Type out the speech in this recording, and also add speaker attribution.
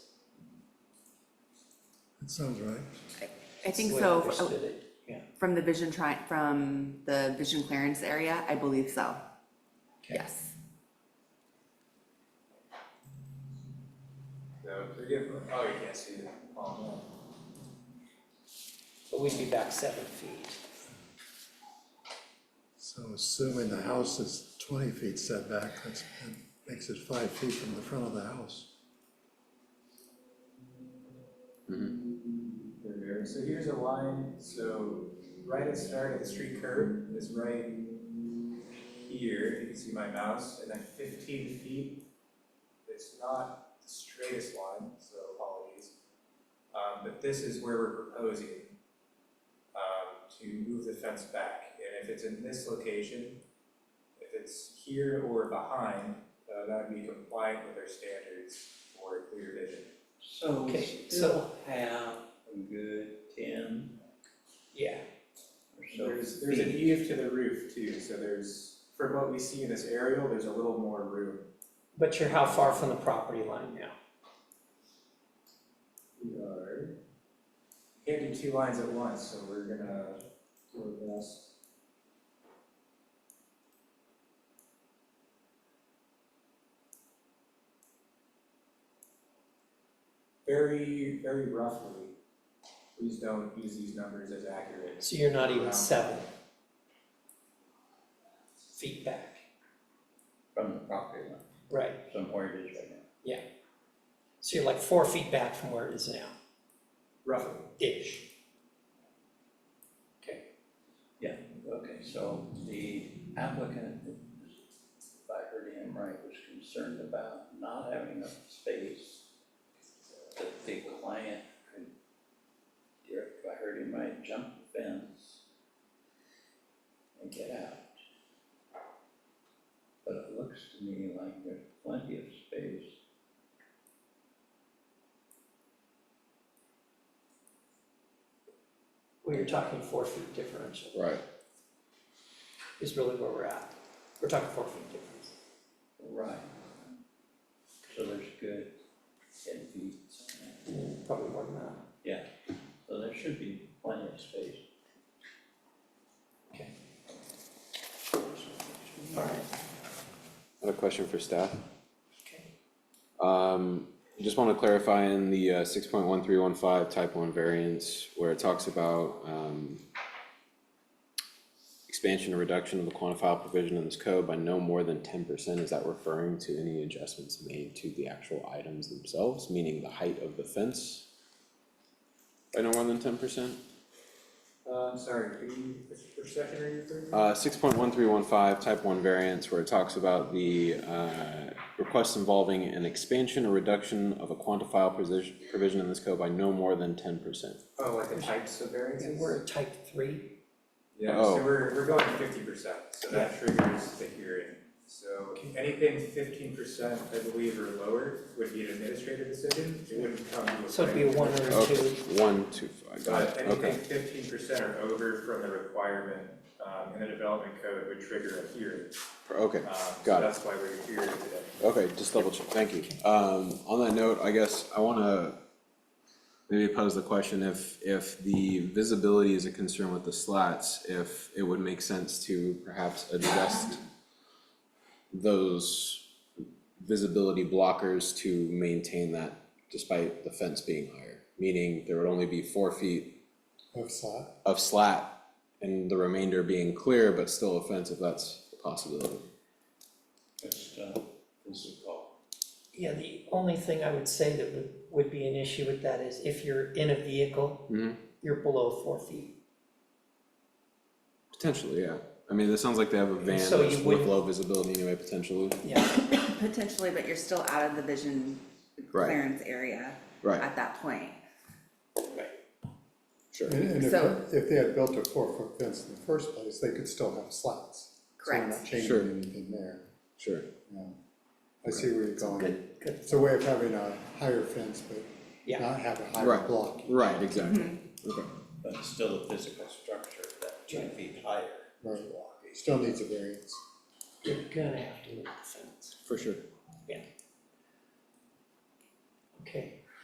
Speaker 1: That sounds right.
Speaker 2: I think
Speaker 3: the way I
Speaker 2: so, uh,
Speaker 3: understood it, yeah.
Speaker 2: from the vision tri, from the vision clearance area, I believe so.
Speaker 3: Okay.
Speaker 2: Yes,
Speaker 4: So forgive, oh, you can't see it. Oh, no.
Speaker 3: But we'd be back seven feet.
Speaker 1: So assuming the house is twenty feet setback, that's, that makes it five feet from the front of the house.
Speaker 4: There we are. So here's a line, so right at the start of the street curb is right here, you can see my mouse, and then fifteen feet. It's not the straightest line, so apologies. Um, but this is where we're proposing um, to move the fence back, and if it's in this location, if it's here or behind, uh, that would be compliant with our standards for clear vision.
Speaker 5: So we
Speaker 3: Okay,
Speaker 5: still have a good ten
Speaker 3: Yeah,
Speaker 5: or so
Speaker 4: There's, there's an
Speaker 5: feet.
Speaker 4: eave to the roof too, so there's, from what we see in this aerial, there's a little more room.
Speaker 3: but you're how far from the property line now?
Speaker 4: We are. Can't do two lines at once, so we're gonna do our best. Very, very roughly, please don't use these numbers as accurate.
Speaker 3: So you're not
Speaker 4: Wow.
Speaker 3: even seven feet back,
Speaker 5: from the property line,
Speaker 3: right?
Speaker 5: from where it is right now.
Speaker 3: So you're like four feet back from where it is now,
Speaker 4: Roughly.
Speaker 3: ish. Okay,
Speaker 5: Okay, so the applicant, if I heard him right, was concerned about not having enough space that the client could, if I heard him right, jump the fence and get out. But it looks to me like there's plenty of space
Speaker 3: well, you're talking four feet differential
Speaker 6: Right.
Speaker 3: is really where we're at. We're talking four feet difference.
Speaker 5: Right. So there's good ten feet, something.
Speaker 3: Probably more than that.
Speaker 5: yeah, so there should be plenty of space.
Speaker 3: Okay. Alright,
Speaker 6: I have a question for staff.
Speaker 3: okay.
Speaker 6: Um, just wanna clarify in the uh six point one three one five type one variance where it talks about um. Expansion or reduction of the quantifiable provision in this code by no more than ten percent, is that referring to any adjustments made to the actual items themselves, meaning the height of the fence? By no more than ten percent?
Speaker 4: Uh, I'm sorry, could you, which, which section are you referring to?
Speaker 6: Uh, six point one three one five, type one variance, where it talks about the, uh, requests involving an expansion or reduction of a quantifiable provision, provision in this code by no more than ten percent.
Speaker 4: Oh, like the types of variances?
Speaker 3: And we're at type three,
Speaker 4: Yeah, so
Speaker 6: Oh.
Speaker 4: we're, we're going fifty percent, so that triggers the hearing. So anything fifteen percent, I believe, or lower would be an administrative decision, it wouldn't come to a planning.
Speaker 3: so it'd be a one or a
Speaker 6: Okay,
Speaker 3: two.
Speaker 6: one, two, five, got
Speaker 4: But
Speaker 6: it, okay.
Speaker 4: anything fifteen percent or over from the requirement, um, in the development code would trigger a hearing.
Speaker 6: Okay,
Speaker 4: Um, so
Speaker 6: got it,
Speaker 4: that's why we're here today.
Speaker 6: okay, just double check, thank you. Um, on that note, I guess I wanna maybe pose the question if, if the visibility is a concern with the slats, if it would make sense to perhaps adjust those visibility blockers to maintain that despite the fence being higher, meaning there would only be four feet
Speaker 1: Of slot.
Speaker 6: of slat and the remainder being clear, but still a fence if that's a possibility.
Speaker 5: That's, uh, this is called.
Speaker 3: Yeah, the only thing I would say that would, would be an issue with that is if you're in a vehicle,
Speaker 2: Mm-hmm.
Speaker 6: Mhm.
Speaker 3: you're below four feet.
Speaker 6: Potentially, yeah. I mean, it sounds like they have a van
Speaker 3: So you
Speaker 6: that's with
Speaker 3: wouldn't-
Speaker 6: low visibility anyway, potentially.
Speaker 3: Yeah,
Speaker 2: potentially, but you're still out of the vision
Speaker 6: Right.
Speaker 2: clearance area
Speaker 6: Right,
Speaker 2: at that point.
Speaker 6: sure.
Speaker 7: And and if,
Speaker 2: So-
Speaker 7: if they had built a four-foot fence in the first place, they could still have slats. So we're
Speaker 2: Correct.
Speaker 7: not
Speaker 6: Sure.
Speaker 7: changing anything there,
Speaker 6: Sure.
Speaker 7: yeah. I see where you're going.
Speaker 3: good, good,
Speaker 7: It's a way of having a higher fence,
Speaker 3: Yeah.
Speaker 7: but not have a higher
Speaker 6: Right.
Speaker 7: block.
Speaker 6: Right, exactly. Okay.
Speaker 5: But it's still a physical structure that two
Speaker 3: Right.
Speaker 5: feet higher is
Speaker 7: Right.
Speaker 5: blocking.
Speaker 7: Still needs a variance.
Speaker 3: you're gonna have to look at the fence.
Speaker 6: For sure.
Speaker 3: Okay,